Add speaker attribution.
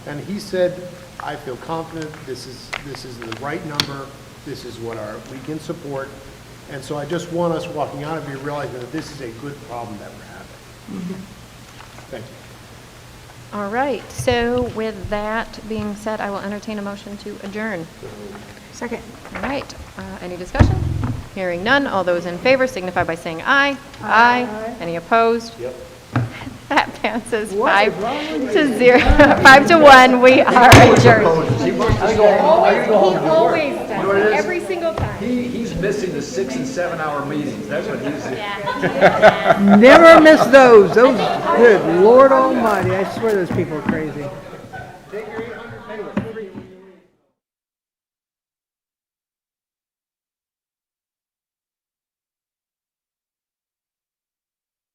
Speaker 1: And he said, I feel confident, this is, this is the right number, this is what our, we can support. And so I just want us walking out of here realizing that this is a good problem that we're having. Thank you.
Speaker 2: All right, so with that being said, I will entertain a motion to adjourn.
Speaker 3: Second.
Speaker 2: All right, uh, any discussion? Hearing none, all those in favor signify by saying aye. Aye. Any opposed? Yep. That passes five to zero, five to one, we are adjourned.
Speaker 4: always does, every single time.
Speaker 5: He, he's missing the six and seven hour meetings, that's what he's doing.
Speaker 3: Never miss those. Those, good Lord Almighty, I swear those people are crazy.